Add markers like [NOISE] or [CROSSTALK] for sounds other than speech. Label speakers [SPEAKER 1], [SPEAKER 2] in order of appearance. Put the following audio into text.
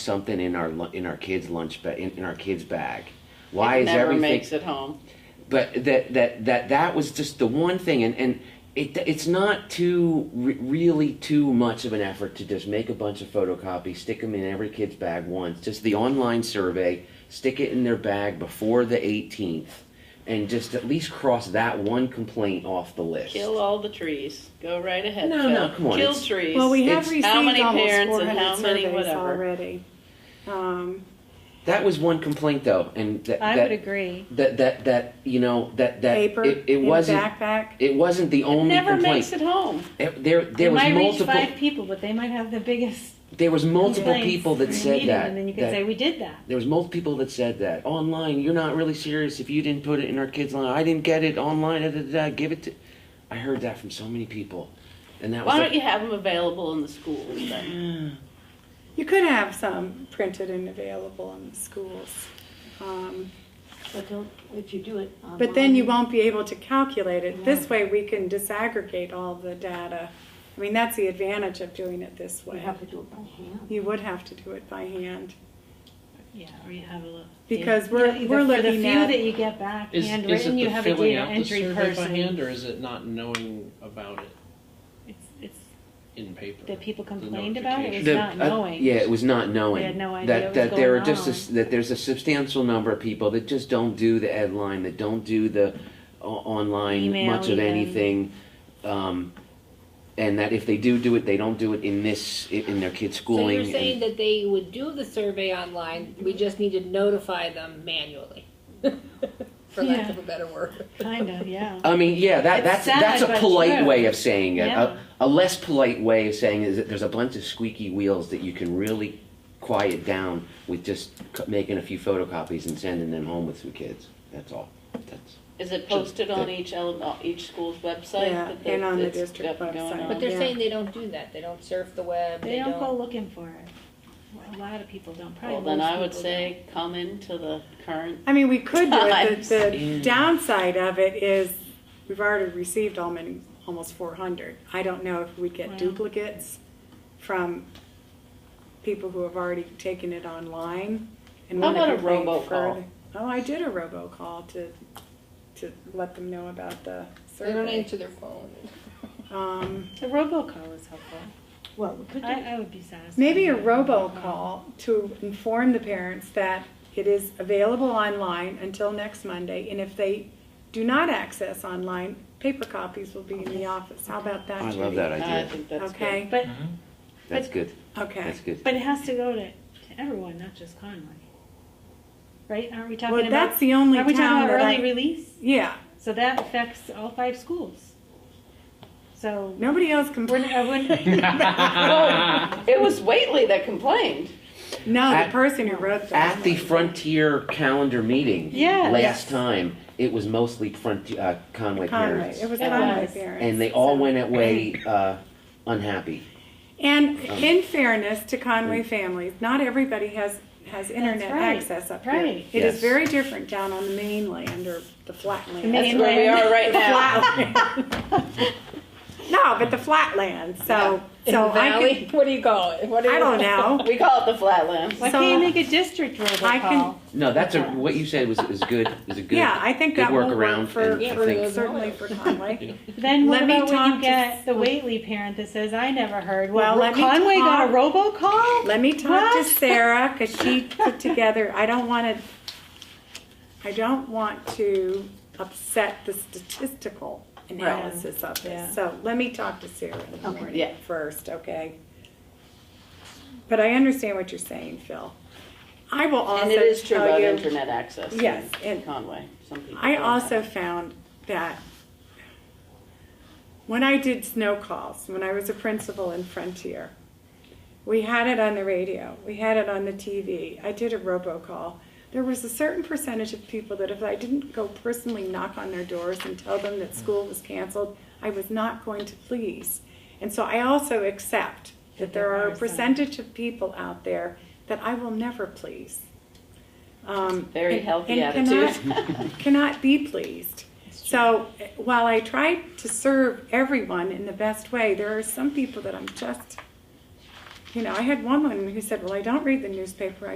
[SPEAKER 1] something in our lu- in our kids' lunch bag in, in our kids' bag? Why is
[SPEAKER 2] never
[SPEAKER 1] everything?
[SPEAKER 2] makes it home.
[SPEAKER 1] but that that that that was just the one thing, and and it it's not too re- really too much of an effort to just make a bunch of photocopies, stick them in every kid's bag once. Just the online survey, stick it in their bag before the 18th, and just at least cross that one complaint off the list.
[SPEAKER 2] Kill all the trees. Go right ahead.
[SPEAKER 1] No,
[SPEAKER 2] Phil.
[SPEAKER 1] no, come on,
[SPEAKER 2] Kill
[SPEAKER 1] it's-
[SPEAKER 2] trees.
[SPEAKER 3] Well, we have
[SPEAKER 1] It's-
[SPEAKER 3] received
[SPEAKER 2] how many
[SPEAKER 3] almost
[SPEAKER 2] parents and
[SPEAKER 3] 400
[SPEAKER 2] how many
[SPEAKER 3] surveys
[SPEAKER 2] whatever.
[SPEAKER 3] already. Um,
[SPEAKER 1] That was one complaint though, and that
[SPEAKER 4] I
[SPEAKER 1] that,
[SPEAKER 4] would agree.
[SPEAKER 1] that that that you know that that
[SPEAKER 3] paper
[SPEAKER 1] it, it
[SPEAKER 3] in
[SPEAKER 1] wasn't
[SPEAKER 3] backpack.
[SPEAKER 1] it wasn't the only
[SPEAKER 2] Never
[SPEAKER 1] complaint.
[SPEAKER 2] makes it home.
[SPEAKER 1] It- there there
[SPEAKER 4] They
[SPEAKER 1] was
[SPEAKER 4] might
[SPEAKER 1] multiple
[SPEAKER 4] reach five people, but they might have the biggest.
[SPEAKER 1] there was multiple
[SPEAKER 4] complaints
[SPEAKER 1] people that
[SPEAKER 4] in a
[SPEAKER 1] said
[SPEAKER 4] meeting,
[SPEAKER 1] that,
[SPEAKER 4] and then you could
[SPEAKER 1] that-
[SPEAKER 4] say we did that.
[SPEAKER 1] there was multiple people that said that online. You're not really serious if you didn't put it in our kids' line. I didn't get it online. Da, da, da, da, give it to. I heard that from so many people, and that
[SPEAKER 2] Why
[SPEAKER 1] was Mm.
[SPEAKER 2] don't
[SPEAKER 1] like,
[SPEAKER 2] you have them available in the schools? Then?
[SPEAKER 3] You could have some printed and available in the schools. Um,
[SPEAKER 5] But don't, if you do it online.
[SPEAKER 3] But then you won't be able to calculate it. This way, we can disaggregate all the data. I mean, that's the advantage of doing it this
[SPEAKER 5] You
[SPEAKER 3] way.
[SPEAKER 5] have to do it by hand.
[SPEAKER 3] You would have to do it by hand.
[SPEAKER 4] Yeah, or you have a look.
[SPEAKER 3] Because we're- we're
[SPEAKER 4] for the
[SPEAKER 3] looking
[SPEAKER 4] few
[SPEAKER 3] at-
[SPEAKER 4] that you get back
[SPEAKER 6] Is, is it
[SPEAKER 4] handwritten, you
[SPEAKER 6] the
[SPEAKER 4] have a
[SPEAKER 6] filling
[SPEAKER 4] data
[SPEAKER 6] out the
[SPEAKER 4] entry
[SPEAKER 6] survey by hand,
[SPEAKER 4] person.
[SPEAKER 6] or is it not knowing about it
[SPEAKER 4] It's, it's
[SPEAKER 6] in paper?
[SPEAKER 4] that people complained about it was
[SPEAKER 1] The-
[SPEAKER 4] not
[SPEAKER 1] uh,
[SPEAKER 4] knowing.
[SPEAKER 1] yeah, it was not knowing.
[SPEAKER 4] They had no idea
[SPEAKER 1] that
[SPEAKER 4] what was
[SPEAKER 1] that there
[SPEAKER 4] going
[SPEAKER 1] are just a s
[SPEAKER 4] on.
[SPEAKER 1] that there's a substantial number of people that just don't do the ed line, that don't do the o- online
[SPEAKER 4] Email
[SPEAKER 1] much of
[SPEAKER 4] even.
[SPEAKER 1] anything, um, and that if they do do it, they don't do it in this i- in their kids'
[SPEAKER 7] So
[SPEAKER 1] schooling.
[SPEAKER 7] you're
[SPEAKER 1] and-
[SPEAKER 7] saying that they would do the survey online, we just need to notify them manually? [LAUGHS] For lack of a better word.
[SPEAKER 4] Kind
[SPEAKER 5] [LAUGHS]
[SPEAKER 4] of, yeah.
[SPEAKER 1] I mean, yeah, that,
[SPEAKER 4] It's
[SPEAKER 1] that's
[SPEAKER 4] sad,
[SPEAKER 1] that's a
[SPEAKER 4] but
[SPEAKER 1] polite
[SPEAKER 4] true.
[SPEAKER 1] way of saying it.
[SPEAKER 4] Yeah.
[SPEAKER 1] A, a less polite way of saying is that there's a bunch of squeaky wheels that you can really quiet down with just c- making a few photocopies and sending them home with some kids. That's all. That's
[SPEAKER 2] Is it posted on each ele- uh, each school's website?
[SPEAKER 3] Yeah,
[SPEAKER 2] that the-
[SPEAKER 3] and on the
[SPEAKER 2] that's
[SPEAKER 3] district
[SPEAKER 2] got going
[SPEAKER 3] website.
[SPEAKER 2] on?
[SPEAKER 7] But they're
[SPEAKER 3] Yeah.
[SPEAKER 7] saying they don't do that, they don't surf the web,
[SPEAKER 4] They
[SPEAKER 7] they
[SPEAKER 4] don't go
[SPEAKER 7] don't.
[SPEAKER 4] looking for it. A lot of people don't, probably
[SPEAKER 2] Well, then
[SPEAKER 4] most
[SPEAKER 2] I would
[SPEAKER 4] people
[SPEAKER 2] say come into the current.
[SPEAKER 3] I mean, we could do it. The, the
[SPEAKER 1] Times.
[SPEAKER 3] downside of it is we've already received all many, almost 400. I don't know if we'd get
[SPEAKER 4] Wow.
[SPEAKER 3] duplicates from people who have already taken it online. And
[SPEAKER 2] How about
[SPEAKER 3] wanna
[SPEAKER 2] a
[SPEAKER 3] complain
[SPEAKER 2] robocall?
[SPEAKER 3] further. Oh, I did a robocall to to let them know about the
[SPEAKER 7] They don't
[SPEAKER 3] survey.
[SPEAKER 7] answer [LAUGHS] their phone.
[SPEAKER 3] Um,
[SPEAKER 4] don't. The robocall is helpful.
[SPEAKER 5] Well, we could do
[SPEAKER 4] I, I would be satisfied.
[SPEAKER 3] Maybe a
[SPEAKER 4] with robocall.
[SPEAKER 3] robocall to inform the parents that it is available online until next Monday, and if they do not access online, paper copies will be in the office. How about that,
[SPEAKER 1] I
[SPEAKER 3] Judy?
[SPEAKER 1] love that
[SPEAKER 2] I
[SPEAKER 1] idea.
[SPEAKER 2] think that's good.
[SPEAKER 3] Okay,
[SPEAKER 4] But,
[SPEAKER 1] That's good.
[SPEAKER 3] okay.
[SPEAKER 1] That's good.
[SPEAKER 4] but it has to go to, to everyone, not just Conway. Right? Aren't we talking
[SPEAKER 3] Well,
[SPEAKER 4] about?
[SPEAKER 3] that's the only
[SPEAKER 4] Are we talking
[SPEAKER 3] town
[SPEAKER 4] about
[SPEAKER 3] that
[SPEAKER 4] early
[SPEAKER 3] I,
[SPEAKER 4] release?
[SPEAKER 3] yeah,
[SPEAKER 4] So that affects all five schools.
[SPEAKER 3] [LAUGHS]
[SPEAKER 4] So
[SPEAKER 3] nobody else
[SPEAKER 4] we're, I wouldn't-
[SPEAKER 3] complained.
[SPEAKER 2] Oh,
[SPEAKER 3] [LAUGHS]
[SPEAKER 2] [LAUGHS] it was Waitley that complained.
[SPEAKER 3] No, the
[SPEAKER 1] At-
[SPEAKER 3] person who wrote that.
[SPEAKER 1] At the Frontier calendar meeting
[SPEAKER 4] Yes.
[SPEAKER 1] last time, it was mostly Frontier uh, Conway
[SPEAKER 3] Conway,
[SPEAKER 1] parents,
[SPEAKER 3] it was
[SPEAKER 4] It
[SPEAKER 3] Conway
[SPEAKER 4] was.
[SPEAKER 3] parents.
[SPEAKER 1] and they all
[SPEAKER 3] so-
[SPEAKER 1] went
[SPEAKER 3] [CLEARS THROAT]
[SPEAKER 1] away uh, unhappy.
[SPEAKER 3] And in fairness to Conway families, not everybody has, has internet
[SPEAKER 4] right.
[SPEAKER 3] access up here.
[SPEAKER 4] Right.
[SPEAKER 3] It is
[SPEAKER 1] Yes.
[SPEAKER 3] very different down on the mainland or the flatland.
[SPEAKER 4] main-
[SPEAKER 2] That's where we are right now.
[SPEAKER 3] No, but the flatland, so,
[SPEAKER 7] In
[SPEAKER 3] so
[SPEAKER 7] the
[SPEAKER 3] I
[SPEAKER 7] valley,
[SPEAKER 3] could,
[SPEAKER 7] what do you call it? What do
[SPEAKER 3] I
[SPEAKER 7] you-
[SPEAKER 3] don't know.
[SPEAKER 2] We call it the Flatlands.
[SPEAKER 4] why
[SPEAKER 3] So-
[SPEAKER 4] can't you make a district
[SPEAKER 3] I can-
[SPEAKER 4] robocall?
[SPEAKER 1] No, that's a what you said was is good. Is a good.
[SPEAKER 3] Yeah, I think
[SPEAKER 1] good
[SPEAKER 3] that will work
[SPEAKER 1] workaround
[SPEAKER 3] for,
[SPEAKER 1] and I
[SPEAKER 3] for-
[SPEAKER 1] think-
[SPEAKER 3] certainly for
[SPEAKER 1] [LAUGHS]
[SPEAKER 3] Conway.
[SPEAKER 4] Then what
[SPEAKER 3] Let me
[SPEAKER 4] about when
[SPEAKER 3] talk
[SPEAKER 4] you
[SPEAKER 3] to-
[SPEAKER 4] get the Waitley parent that says, I never heard?
[SPEAKER 3] Well,
[SPEAKER 4] Well,
[SPEAKER 3] let me
[SPEAKER 4] Conway got a robocall?
[SPEAKER 3] Let me talk to
[SPEAKER 4] What?
[SPEAKER 3] Sarah, cause
[SPEAKER 2] [LAUGHS]
[SPEAKER 3] she put together, I don't wanna, I don't want to upset the statistical analysis of
[SPEAKER 4] Yeah.
[SPEAKER 3] this. So let me talk to Sarah in the
[SPEAKER 5] Okay.
[SPEAKER 3] morning
[SPEAKER 2] Yeah.
[SPEAKER 3] first, okay? But I understand what you're saying, Phil. I will also
[SPEAKER 2] And it is true
[SPEAKER 3] tell
[SPEAKER 2] about
[SPEAKER 3] you-
[SPEAKER 2] internet access.
[SPEAKER 3] Yes,
[SPEAKER 2] In
[SPEAKER 3] and-
[SPEAKER 2] Conway, some people.
[SPEAKER 3] I
[SPEAKER 2] don't
[SPEAKER 3] also
[SPEAKER 2] have it.
[SPEAKER 3] found that when I did snow calls, when I was a principal in Frontier, we had it on the radio, we had it on the TV, I did a robocall. There was a certain percentage of people that if I didn't go personally knock on their doors and tell them that school was canceled, I was not going to please. And so I also accept that there are a percentage of people out there that I will never please. Um,
[SPEAKER 2] Very
[SPEAKER 3] and-
[SPEAKER 2] healthy
[SPEAKER 3] and
[SPEAKER 2] attitude.
[SPEAKER 3] Cannot, cannot be pleased. So uh, while I try to serve everyone in the best way, there are some people that I'm just You know, I had one woman who said, "Well, I don't read the newspaper.